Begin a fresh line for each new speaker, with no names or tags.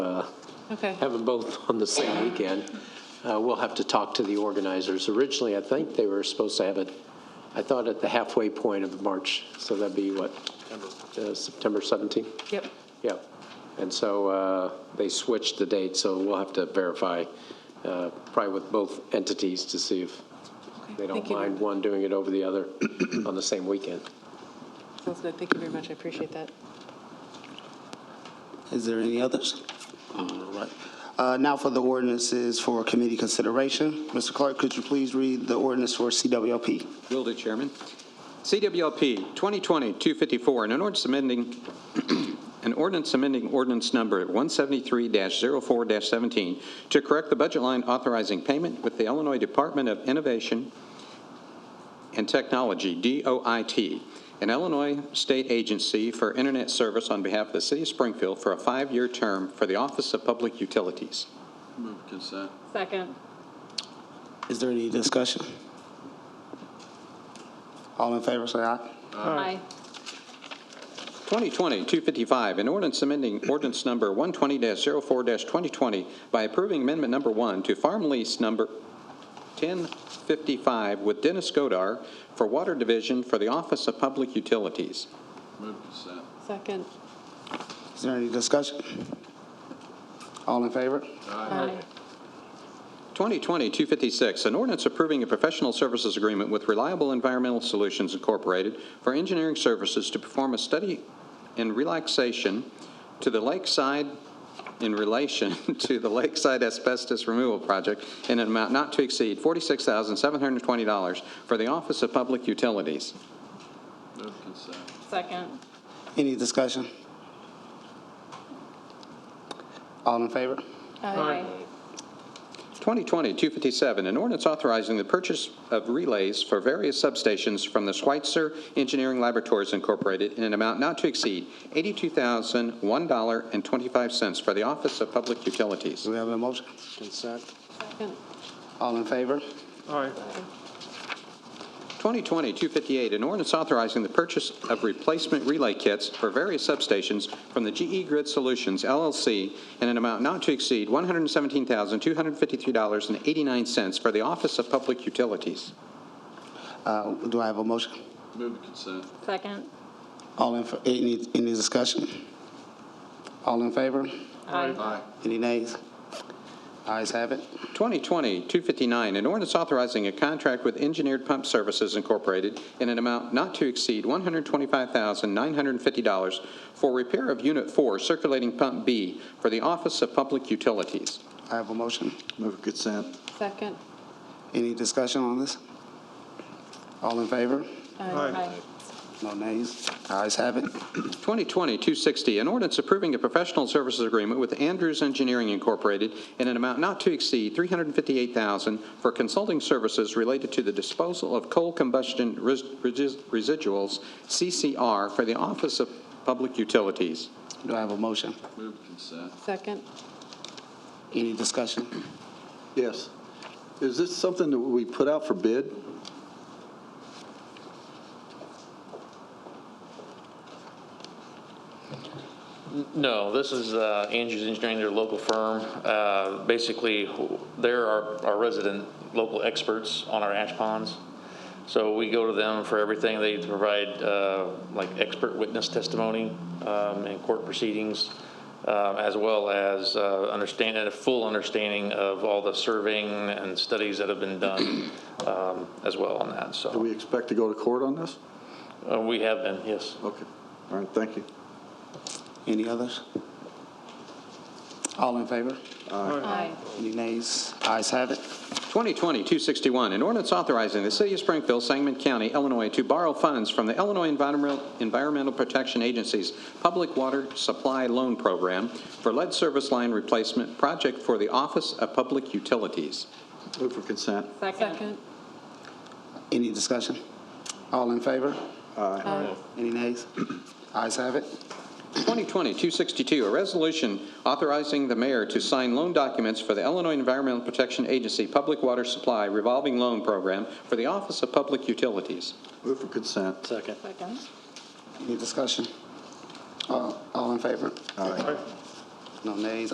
Okay.
uh, have them both on the same weekend. Uh, We'll have to talk to the organizers. Originally, I think they were supposed to have it, I thought at the halfway point of March, so that'd be what? uh, September 17th?
Yep.
Yeah. And so uh, they switched the date, so we'll have to verify, uh, probably with both entities, to see if they don't
Thank you.
mind one doing it over the other on the same weekend.
Sounds good. Thank you very much. I appreciate that.
Is there any others? All right. Uh, Now for the ordinances for committee consideration. Mr. Clark, could you please read the ordinance for CWLP?
Will do, Chairman. CWLP 2020-254, an ordinance amending, an ordinance amending ordinance number 173-04-17 to correct the budget line authorizing payment with the Illinois Department of Innovation and Technology, DOIT, an Illinois state agency for internet service on behalf of the city of Springfield for a five-year term for the Office of Public Utilities.
Move consent.
Second.
Is there any discussion? All in favor, say aye.
Aye.
2020-255, an ordinance amending ordinance number 120-04-2020 by approving amendment number one to farm lease number 1055 with Dennis Godar for Water Division for the Office of Public Utilities.
Move consent.
Second.
Is there any discussion? All in favor?
Aye.
2020-256, an ordinance approving a professional services agreement with Reliable Environmental Solutions Incorporated for engineering services to perform a study in relaxation to the lakeside, in relation to the lakeside asbestos removal project in an amount not to exceed $46,720 for the Office of Public Utilities.
Move consent.
Second.
Any discussion? All in favor?
Aye.
2020-257, an ordinance authorizing the purchase of relays for various substations from the Schweitzer Engineering Laboratories Incorporated in an amount not to exceed $82,001.25 for the Office of Public Utilities.
Do we have a motion?
Second.
All in favor?
2020-258, an ordinance authorizing the purchase of replacement relay kits for various substations from the GE Grid Solutions LLC in an amount not to exceed $117,253.89 for the Office of Public Utilities.
Uh, Do I have a motion?
Move consent.
Second.
All in, fa- any, any discussion? All in favor?
Aye.
Aye.
Any nays? Ayes have it.
2020-259, an ordinance authorizing a contract with Engineered Pump Services Incorporated in an amount not to exceed $125,950 for repair of Unit 4 Circulating Pump B for the Office of Public Utilities.
I have a motion.
Move consent.
Second.
Any discussion on this? All in favor?
Aye.
No nays? Ayes have it.
2020-260, an ordinance approving a professional services agreement with Andrews Engineering Incorporated in an amount not to exceed $358,000 for consulting services related to the disposal of coal combustion res- regis- residuals, CCR, for the Office of Public Utilities.
Do I have a motion?
Move consent.
Second.
Any discussion?
Yes. Is this something that we put out for bid?
No, this is uh, Andrews Engineering, their local firm. Uh, Basically, they're our our resident local experts on our ash ponds. So we go to them for everything. They provide uh, like expert witness testimony um, in court proceedings, um, as well as uh, understanding, a full understanding of all the surveying and studies that have been done um, as well on that,
Do
so.
we expect to go to court on this?
Uh, We have been, yes.
Okay. All right, thank you.
Any others? All in favor?
Aye.
Any nays? Ayes have it.
2020-261, an ordinance authorizing the City of Springfield, Sangamon County, Illinois, to borrow funds from the Illinois Environmental Environmental Protection Agency's Public Water Supply Loan Program for lead service line replacement project for the Office of Public Utilities.
Move for consent.
Second.
Second.
Any discussion? All in favor?
Aye.
Any nays? Ayes have it.
2020-262, a resolution authorizing the mayor to sign loan documents for the Illinois Environmental Protection Agency Public Water Supply Revolving Loan Program for the Office of Public Utilities.
Move for consent.
Second. Second.
Any discussion? Uh, All in favor? No nays?